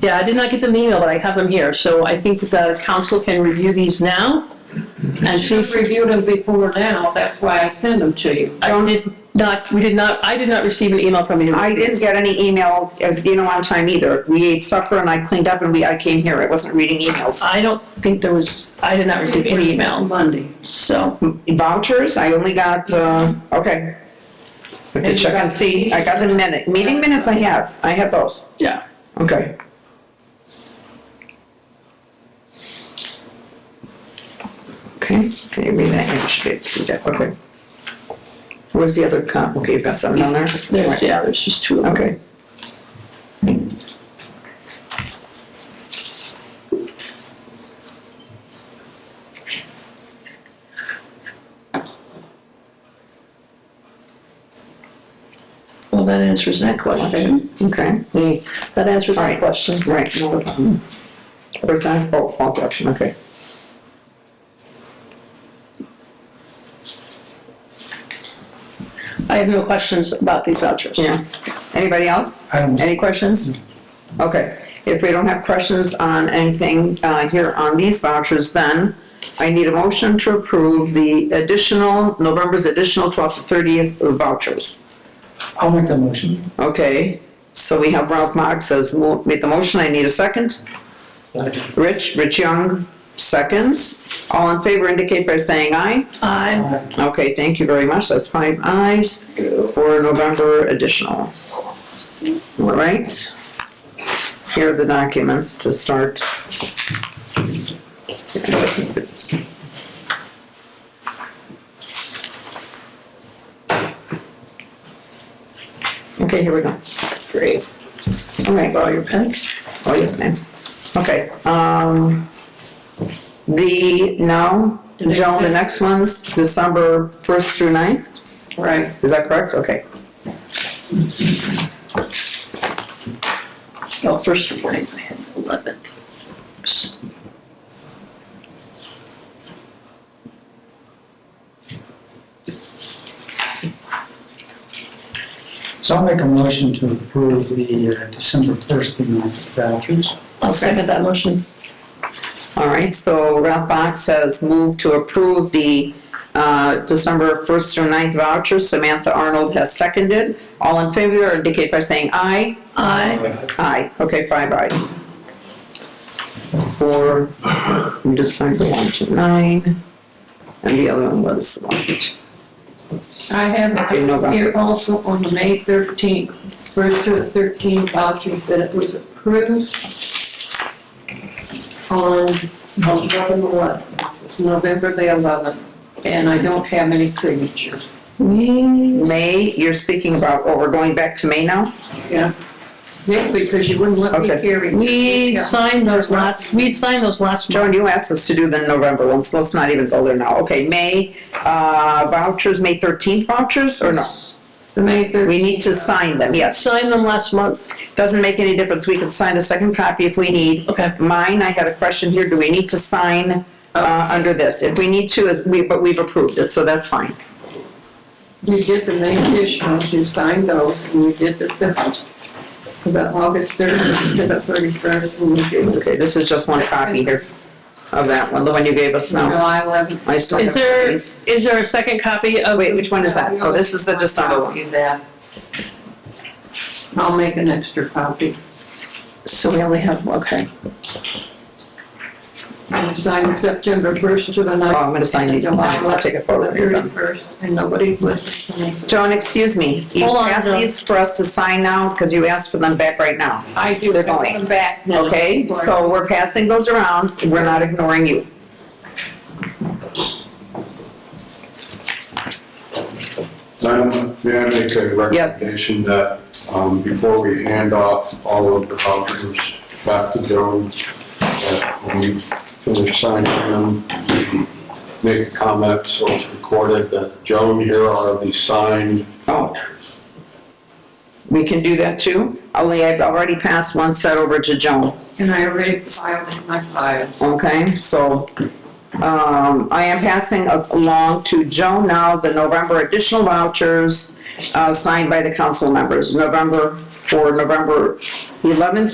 Yeah, I did not get them the email, but I have them here, so I think that the council can review these now and see You've if, reviewed them before now, that's why I send them to you. I did not, we did not, I did not receive an email from you. I didn't get any email, uh, you know, on time either. We ate supper and I cleaned up and we, I came here. I wasn't reading emails. I don't think there was, I did not receive any email, Monday. so. Vouchers, I only got, uh, okay. I can check and see. I got the minute, meeting minutes I have. I have those. Yeah. Okay. Okay, can you read that? Yeah, should be- should be that, okay. Where's the other comp? Okay, you've got something on there? There's, yeah, there's just two of them. Okay. Well, that answers that question. Okay, Hey, That answers that Alright. question. right, no problem. Where's that? Oh, fall collection, okay. I have no questions about these vouchers. Yeah. Anybody else? I don't- Any questions? Okay, if we don't have questions on anything uh, here on these vouchers, then I need a motion to approve the additional, November's additional 12th to 30th vouchers. I'll make that motion. Okay, so we have Ralph Marks has mo- made the motion, I need a second. Rich, Rich Young, seconds. All in favor indicate by saying aye. I, Aye. Okay, thank you very much, that's five ayes for November additional. All right, here are the documents to start. Okay, here we go. great. All right, borrow your pen? Oh, yes, ma'am. Okay, um, the, no, Joan, the next one's December first through 9th. Right. is that correct? Okay. Oh, first of all, I had 11th. So I'll make a motion to approve the uh, December 1st through 9th vouchers. I'll second that motion. All right, so Ralph Box has moved to approve the, uh, December first through 9th vouchers. Samantha Arnold has seconded. All in favor indicate by saying aye. I, Aye, okay, five ayes. Four, I'm just trying to one to nine, and the other one was one. I have Okay, no it voucher. here also on the May thirteenth, first to the thirteenth vouchers that it was approved on November eleventh, It's November the eleventh, and I don't have any signatures. we, May, you're speaking about, oh, we're going back to May now? Yeah. Yeah, because you wouldn't let me Okay. carry. we Yeah. signed those last, we'd signed those last month. Joan, you asked us to do the November ones, so let's not even go there now. Okay, May, uh, vouchers, May thirteenth vouchers, or no? The May thirteenth. We need to sign them, yes. Signed them last month. Doesn't make any difference, we could sign a second copy if we need. Okay. Mine, I had a question here, do we need to sign, uh, under this? If we need to, is, we, but we've approved it, so that's fine. You did the main dish ones, you signed those, and you did the civils. For the August thirtieth to the thirty-first, and you did the Okay, this is just one copy here of that one, the one you gave us now. July eleventh. I still Is have there, copies. is there a second copy of? Wait, which one is that? Oh, this is the December one. Do that. I'll make an extra copy, So we only have, okay. and sign the September first to the Oh, ninth. I'm gonna sign these. July I'll take a photo eleventh, of the your gun. thirty-first, and nobody's listening to me. Joan, excuse me. You Hold on, asked Joan. these for us to sign now because you asked for them back right now. I do They're have going. them back now. Okay, for- so we're passing those around. We're not ignoring you. Madam, may I make a Yes. recommendation that, um, before we hand off all of the vouchers back to Joan, that when we finish signing them, make a comment so it's recorded that Joan, here are the signed Oh, vouchers. we can do that too? Only I've already passed one set over to Joan, And I already filed in my file. okay? So, um, I am passing a- along to Joan now the November additional vouchers, uh, signed by the council members, November, for November eleventh